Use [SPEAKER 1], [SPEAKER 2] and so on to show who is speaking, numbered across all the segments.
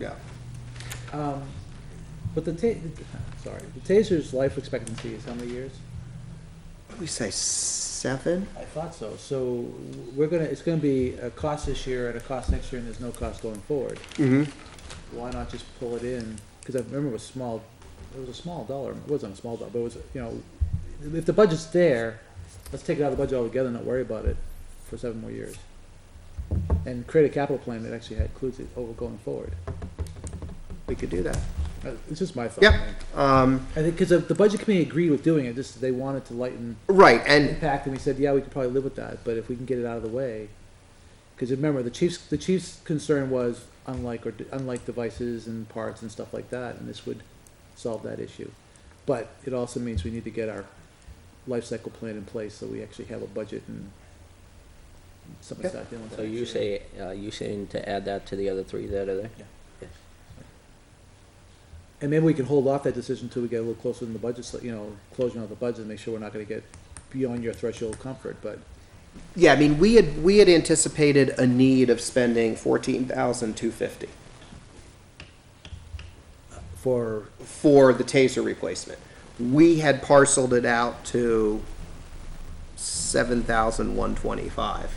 [SPEAKER 1] Yeah.
[SPEAKER 2] Um, But the ta, sorry, the taser's life expectancy is how many years?
[SPEAKER 1] What do we say, seven?
[SPEAKER 2] I thought so. So we're gonna, it's gonna be a cost this year and a cost next year, and there's no cost going forward.
[SPEAKER 1] Mm-hmm.
[SPEAKER 2] Why not just pull it in? Because I remember it was small, it was a small dollar, it wasn't a small dollar, but it was, you know, if the budget's there, let's take it out of the budget altogether and not worry about it for seven more years. And create a capital plan that actually includes it over going forward.
[SPEAKER 1] We could do that.
[SPEAKER 2] Uh, It's just my thought.
[SPEAKER 1] Yep.
[SPEAKER 2] man.
[SPEAKER 1] Um,
[SPEAKER 2] I think, because the budget committee agreed with doing it, just they wanted to lighten
[SPEAKER 1] right, and,
[SPEAKER 2] impact, and we said, yeah, we could probably live with that, but if we can get it out of the way. Because remember, the chief's, the chief's concern was unlike, or unlike devices and parts and stuff like that, and this would solve that issue. But it also means we need to get our life cycle plan in place, so we actually have a budget and something to start dealing with.
[SPEAKER 3] So you say, uh, you saying to add that to the other three that are there?
[SPEAKER 2] And maybe we can hold off that decision until we get a little closer in the budget, so, you know, closing out the budget, and make sure we're not gonna get beyond your threshold of comfort, but
[SPEAKER 1] yeah, I mean, we had, we had anticipated a need of spending fourteen thousand two fifty
[SPEAKER 2] for
[SPEAKER 1] for the taser replacement. We had parceled it out to seven thousand one twenty-five.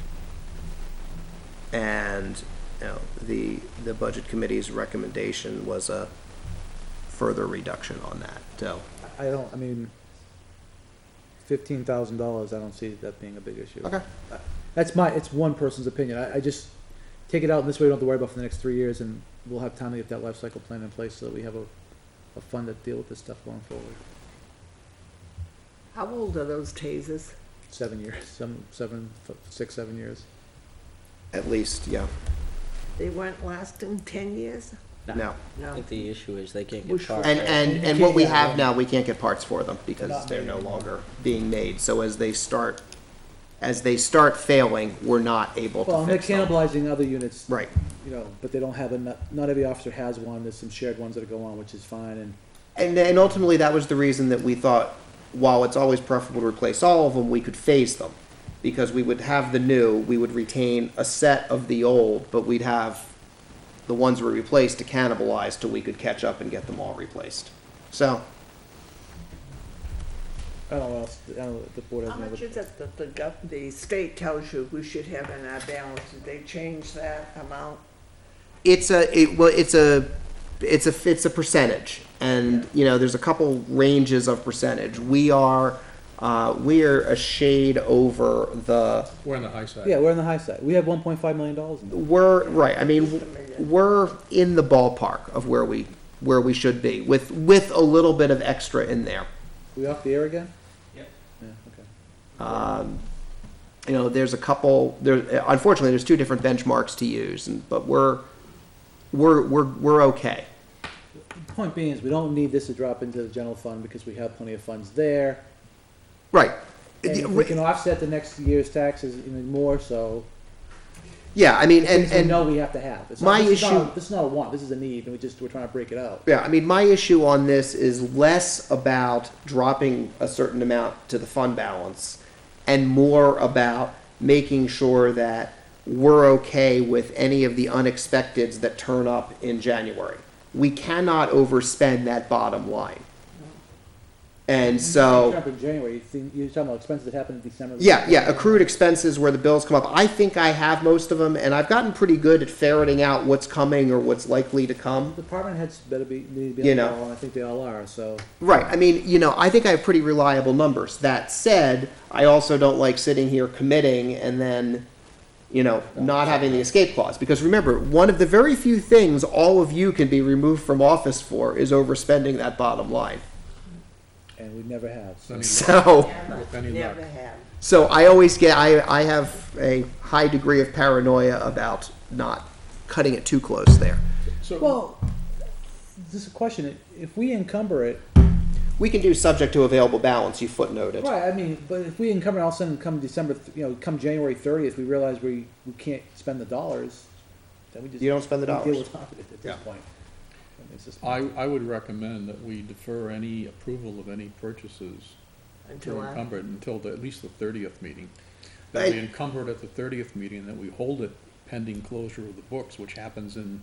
[SPEAKER 1] And, you know, the, the budget committee's recommendation was a further reduction on that, so.
[SPEAKER 2] I don't, I mean, fifteen thousand dollars, I don't see that being a big issue. That's my, it's one person's opinion, I, I just, take it out, and this way we don't have to worry about it for the next three years, and we'll have time to get that life cycle plan in place, so that we have a, a fund that deal with this stuff going forward.
[SPEAKER 4] How old are those tasers?
[SPEAKER 2] Seven years, some, seven, f- six, seven years.
[SPEAKER 1] At least, yeah,
[SPEAKER 4] They weren't lasting ten years?
[SPEAKER 1] no.
[SPEAKER 3] I
[SPEAKER 4] No.
[SPEAKER 3] think the issue is they can't
[SPEAKER 4] Which-
[SPEAKER 3] get parts.
[SPEAKER 1] And,
[SPEAKER 3] right?
[SPEAKER 1] and, and what we have now, we can't get parts for them because
[SPEAKER 2] not
[SPEAKER 1] they're
[SPEAKER 2] made
[SPEAKER 1] no
[SPEAKER 2] anymore.
[SPEAKER 1] longer being made. So as they start, as they start failing, we're not able
[SPEAKER 2] Well,
[SPEAKER 1] to
[SPEAKER 2] and they're
[SPEAKER 1] fix them.
[SPEAKER 2] cannibalizing other units,
[SPEAKER 1] Right,
[SPEAKER 2] you know, but they don't have enough, not every officer has one, there's some shared ones that go on, which is fine, and
[SPEAKER 1] and, and ultimately, that was the reason that we thought, while it's always preferable to replace all of them, we could phase them. Because we would have the new, we would retain a set of the old, but we'd have the ones we replaced to cannibalize till we could catch up and get them all replaced. So,
[SPEAKER 2] I don't know, what else- I don't know, if the board has
[SPEAKER 4] How
[SPEAKER 2] another.
[SPEAKER 4] much is it that the, gov- the state tells you we should have in our balance? Did they change that amount?
[SPEAKER 1] it's a it well it's a it's a it's a percentage and you know there's a couple ranges of percentage we are uh, we are a shade over the
[SPEAKER 5] We're on the high side.
[SPEAKER 2] Yeah, we're on the high side, we have one point five million dollars in there.
[SPEAKER 1] we're right i mean we're in the ballpark of where we where we should be with with a little bit of extra in there
[SPEAKER 2] We off the air again?
[SPEAKER 1] Yep.
[SPEAKER 2] Yeah, okay.
[SPEAKER 1] you know there's a couple there unfortunately there's two different benchmarks to use and but we're we're we're, we're okay
[SPEAKER 2] Point being is, we don't need this to drop into the general fund because we have plenty of funds there.
[SPEAKER 1] right
[SPEAKER 2] And if we can offset the next year's taxes even more so,
[SPEAKER 1] yeah i mean and
[SPEAKER 2] things we
[SPEAKER 1] and
[SPEAKER 2] know we have to have. It's not-
[SPEAKER 1] my
[SPEAKER 2] this is not-
[SPEAKER 1] issue-
[SPEAKER 2] This is not a want, this is a need, and we just, we're trying to break it out.
[SPEAKER 1] Yeah, I mean, my issue on this is less about dropping a certain amount to the fund balance and more about making sure that we're okay with any of the unexpecteds that turn up in January. We cannot overspend that bottom line. And so.
[SPEAKER 2] Trump in January, you think- you're talking about expenses that happened in December.
[SPEAKER 1] Yeah, yeah, accrued expenses where the bills come up. I think I have most of them, and I've gotten pretty good at ferreting out what's coming or what's likely to come.
[SPEAKER 2] Department heads better be, need to be
[SPEAKER 1] You
[SPEAKER 2] on the
[SPEAKER 1] know.
[SPEAKER 2] ball, and I think they all are, so.
[SPEAKER 1] Right. I mean, you know, I think I have pretty reliable numbers. That said, I also don't like sitting here committing and then, you know, not having the escape clause. Because remember, one of the very few things all of you can be removed from office for is overspending that bottom line.
[SPEAKER 2] And we never have, so.
[SPEAKER 5] Any luck?
[SPEAKER 1] So,
[SPEAKER 5] With any luck.
[SPEAKER 4] Never have.
[SPEAKER 1] so I always get, I, I have a high degree of paranoia about not cutting it too close there.
[SPEAKER 5] So,
[SPEAKER 2] Well, this is a question, if we encumber it,
[SPEAKER 1] We can do subject to available balance, you footnoted.
[SPEAKER 2] Right, I mean, but if we encumber, all of a sudden come December, th- you know, come January thirtieth, we realize we, we can't spend the dollars, then we just.
[SPEAKER 1] You don't spend the
[SPEAKER 2] we deal
[SPEAKER 1] dollars.
[SPEAKER 2] without it At this
[SPEAKER 1] Yeah.
[SPEAKER 2] point. I mean, it's just-
[SPEAKER 5] I, I would recommend that we defer any approval of any purchases that
[SPEAKER 4] Until
[SPEAKER 5] are
[SPEAKER 4] I,
[SPEAKER 5] encumbered until the- at least the thirtieth meeting. That we
[SPEAKER 1] Right.
[SPEAKER 5] encumber it at the thirtieth meeting, and that we hold it pending closure of the books, which happens in